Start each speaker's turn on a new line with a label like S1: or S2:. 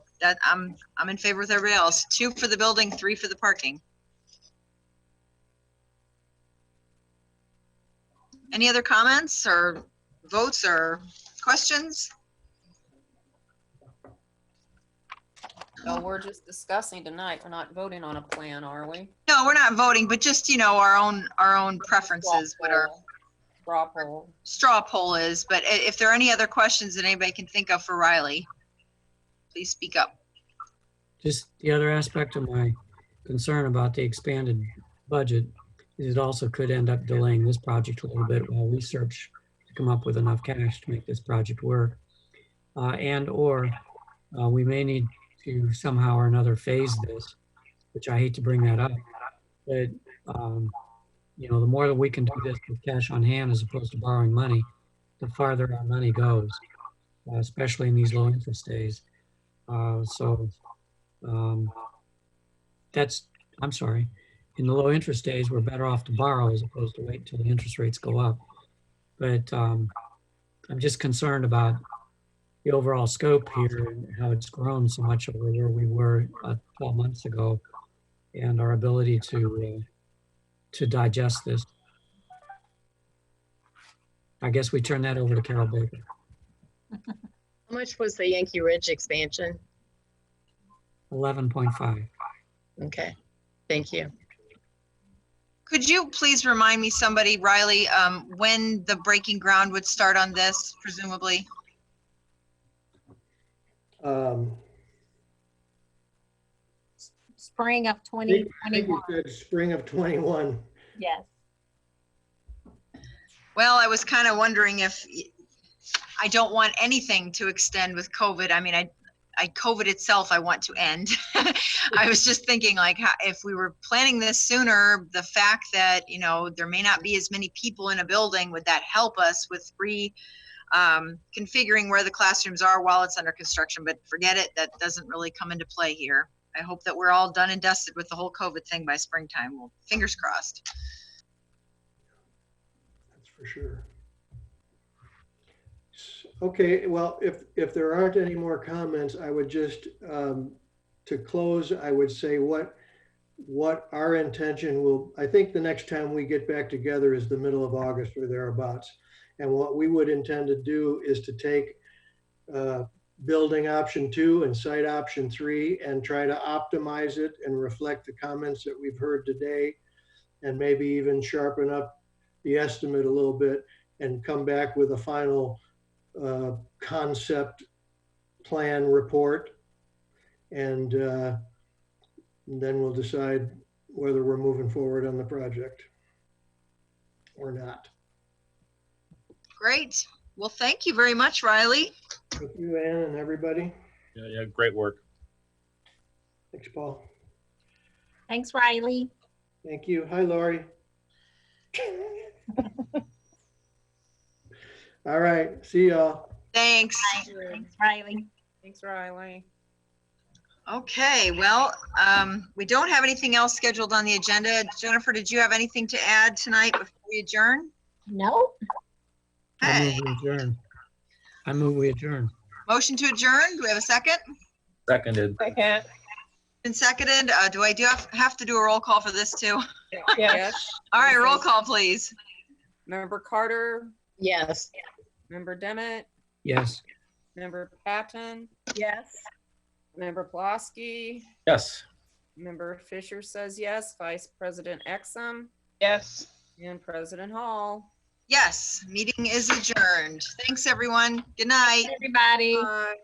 S1: that, I'm, I'm in favor with everybody else. Two for the building, three for the parking. Any other comments or votes or questions?
S2: So we're just discussing tonight. We're not voting on a plan, are we?
S1: No, we're not voting, but just, you know, our own, our own preferences, what our
S2: Straw poll.
S1: straw poll is. But i- if there are any other questions that anybody can think of for Riley, please speak up.
S3: Just the other aspect of my concern about the expanded budget is it also could end up delaying this project a little bit while we search to come up with enough cash to make this project work. Uh, and or uh, we may need to somehow or another phase this, which I hate to bring that up, but um, you know, the more that we can do this with cash on hand as opposed to borrowing money, the farther our money goes, uh, especially in these low interest days. Uh, so um, that's, I'm sorry, in the low interest days, we're better off to borrow as opposed to wait until the interest rates go up. But um, I'm just concerned about the overall scope here and how it's grown so much over where we were uh, 12 months ago and our ability to, uh, to digest this. I guess we turn that over to Carol Baker.
S4: How much was the Yankee Ridge expansion?
S3: 11.5.
S4: Okay, thank you.
S1: Could you please remind me, somebody, Riley, um, when the breaking ground would start on this presumably?
S5: Um,
S6: spring of
S5: I think I think
S6: 2021,
S5: you said spring of 21.
S6: yes.
S1: Well, I was kind of wondering if, I don't want anything to extend with COVID. I mean, I, I, COVID itself, I want to end. I was just thinking like, how- if we were planning this sooner, the fact that, you know, there may not be as many people in a building, would that help us with re, um, configuring where the classrooms are while it's under construction? But forget it, that doesn't really come into play here. I hope that we're all done and dusted with the whole COVID thing by springtime. Well, fingers crossed.
S5: That's for sure. S- Okay, well, if, if there aren't any more comments, I would just, um, to close, I would say what, what our intention will, I think the next time we get back together is the middle of August or thereabouts. And what we would intend to do is to take, uh, building option two and site option three and try to optimize it and reflect the comments that we've heard today. And maybe even sharpen up the estimate a little bit and come back with a final uh, concept plan report. And uh, then we'll decide whether we're moving forward on the project or not.
S1: Great. Well, thank you very much, Riley.
S5: Thank you, Ann, and everybody.
S7: Yeah, yeah, great work.
S5: Thanks, Paul.
S6: Thanks, Riley.
S5: Thank you. Hi, Laurie. All right, see y'all.
S1: Thanks.
S6: Thanks, Riley.
S2: Thanks, Riley.
S1: Okay, well, um, we don't have anything else scheduled on the agenda. Jennifer, did you have anything to add tonight before we adjourn?
S6: No?
S3: I
S1: Hey,
S3: move we adjourn. I move we adjourn.
S1: motion to adjourn. Do we have a second?
S7: Seconded.
S4: Second.
S1: Been seconded. Uh, do I do have, have to do a roll call for this too?
S2: Yes.
S1: All right, roll call, please.
S2: Member Carter,
S4: Yes.
S2: member Demmett,
S3: Yes.
S2: member Patton,
S4: Yes.
S2: member Plasky,
S7: Yes.
S2: member Fisher says yes, Vice President Exum,
S4: Yes.
S2: and President Hall.
S1: Yes, meeting is adjourned. Thanks, everyone. Good night.
S6: Everybody.
S2: Bye.